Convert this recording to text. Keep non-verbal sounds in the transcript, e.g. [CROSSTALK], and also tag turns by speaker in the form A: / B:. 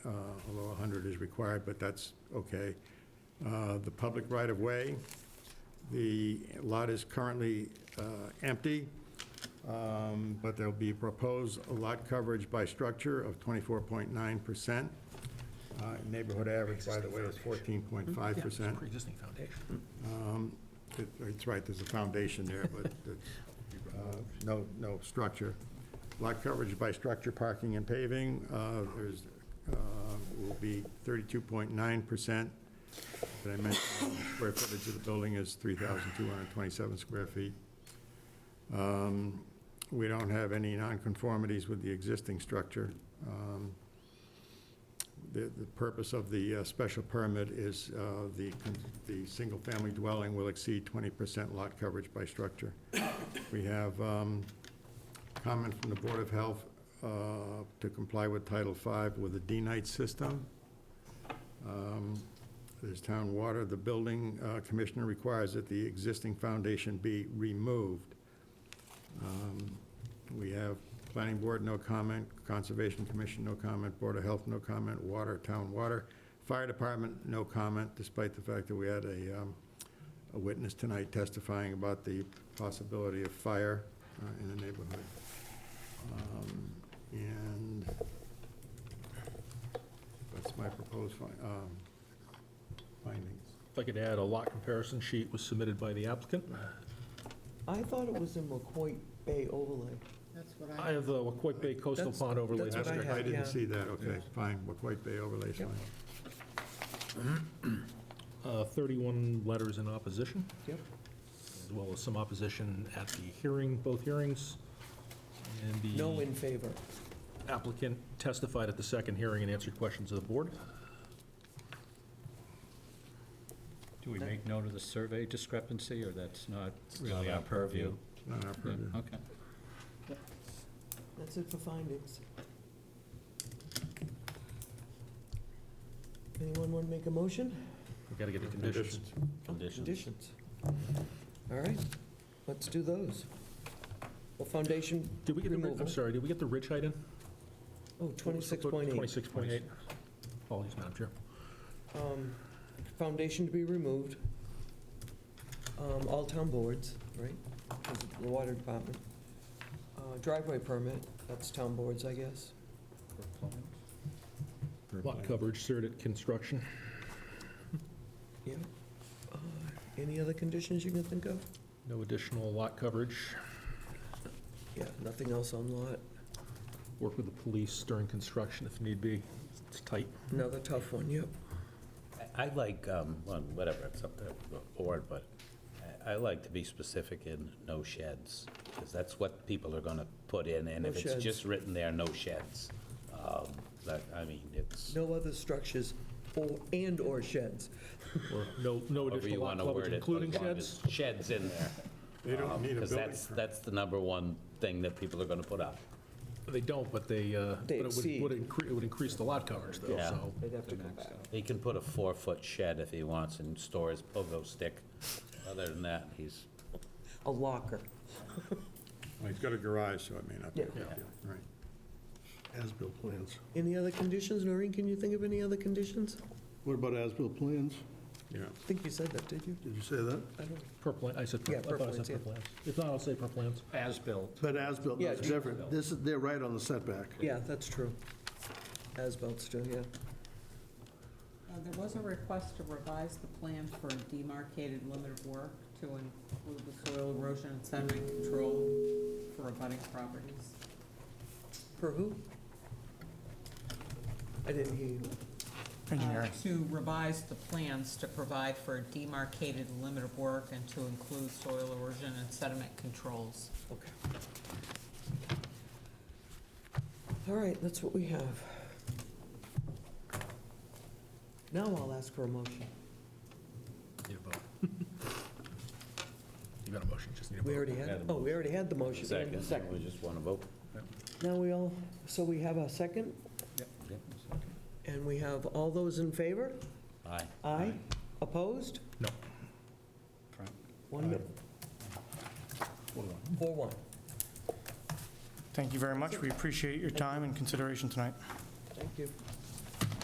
A: uh, 100 is required, but that's okay. Uh, The public right-of-way, the lot is currently uh, empty, um, but there'll be proposed lot coverage by structure of 24.9%. Uh, Neighborhood average, by the way, is 14.5%.
B: Pre-existing foundation.
A: It- It's right, there's a foundation there, but it's, uh, no, no structure. Lot coverage by structure, parking, and paving, uh, there's, uh, will be 32.9%. Did I mention the square footage of the building is 3,227 square feet? Um, We don't have any nonconformities with the existing structure. Um, the, the purpose of the uh, special permit is uh, the, con- the single-family dwelling will exceed 20% lot coverage by structure. We have um, comment from the Board of Health uh, to comply with Title V with a D-Night system. Um, There's town water, the building uh, commissioner requires that the existing foundation be removed. Um, We have Planning Board, no comment, Conservation Commission, no comment, Board of Health, no comment, Water, Town Water, Fire Department, no comment, despite the fact that we had a, um, a witness tonight testifying about the possibility of fire uh, in the neighborhood. Um, And that's my proposed fi- um, findings.
B: If I could add, a lot comparison sheet was submitted by the applicant.
C: I thought it was in McCoy Bay overlay.
D: That's what I,
B: I have uh, the Wacoit Bay Coastal
C: That's-
B: Pond Overlay
C: that's what I
B: District.
C: have, yeah.
A: didn't see that, okay, fine, we're quite Bay overlay,
C: Yep.
A: fine.
B: Uh, 31 letters in opposition,
C: Yep.
B: as well as some opposition at the hearing, both hearings. And
C: No
B: the
C: in favor.
B: applicant testified at the second hearing and answered questions of the board.
E: Do we make note of the survey discrepancy, or that's not really
A: not
E: our purview?
A: Not our
E: Yeah,
A: purview.
B: Mm-hmm.
E: Okay.
C: That's it for findings. Anyone want to make a motion?
B: We've got to get the conditions.
E: Conditions.
C: Conditions. All right, let's do those. Well, foundation
B: Did we get the, ri-
C: removal.
B: I'm sorry, did we get the ridge height in?
C: Oh, 26.8.
B: 26.8. Apologies, Madam Chair.
C: Um, Foundation to be removed. Um, All town boards, right? 'Cause of The water department. Uh, Driveway permit, that's town boards, I guess.
B: Lot coverage, certed construction.
C: Yeah. Uh, Any other conditions you can think of?
B: No additional lot coverage.
C: Yeah, nothing else on lot.
B: Work with the police during construction if need be. It's tight.
C: Another tough one, yep.
F: I I like, um, well, whatever, it's up to the board, but I- I like to be specific in no sheds, because that's what people are going to put in, and
C: No
F: if it's
C: sheds.
F: just written there, no sheds, um, that, I mean, it's,
C: No other structures or, and/or sheds.
B: Or no, no
F: however you
B: additional
F: want
B: lot
F: to word
B: coverage,
F: it. but as
B: including
F: long
B: sheds?
F: as Sheds in there.
A: They don't need a
F: Because
A: building
F: Um, that's,
A: permit.
F: that's the number one thing that people are going to put up.
B: They don't, but they, uh, but
C: They
B: it would-
C: exceed.
B: would increase, it would increase the lot coverage though,
F: Yeah.
B: so.
C: They'd have to come back.
F: He can put a four-foot shed if he wants and store his pogo stick. Other than that, he's,
C: A locker.
A: Well, He's got a garage, so it may not be a big
B: Yeah.
A: deal, right.
G: As-built plans.
C: Any other conditions? Noreen, can you think of any other conditions?
G: What about as-built plans?
A: Yeah,
C: I think you said that, did you?
G: Did you say that?
C: I don't.
B: Per plan, I said, per-
C: Yeah,
B: I
C: per
B: thought I
C: plans,
B: said per
C: yeah.
B: plans. If not, I'll say per plans.
E: As-built.
G: But as-built
C: Yeah,
G: is
C: it's-
G: different. This is, they're right on the setback.
C: Yeah, that's true. As-built still, yeah.
D: uh, there was a request to revise the plan for a demarcated limit of work to include the soil erosion and sediment control for abutting properties.
C: For who? I didn't hear you.
D: Uh, To revise the plans to provide for a demarcated limit of work and to include soil erosion and sediment controls.
C: Okay. All right, that's what we have. Now I'll ask for a motion.
B: [LAUGHS] Need a vote. You got a motion, just need a vote.
C: We already had, oh, we already had the motion.
F: second, we just want to vote.
C: Now we all, so we have a second, and we have all those in favor?
F: Aye.
C: Aye? Opposed?
B: No.
C: One, four, one.
H: Thank you very much. We appreciate your time and consideration tonight.
C: Thank you.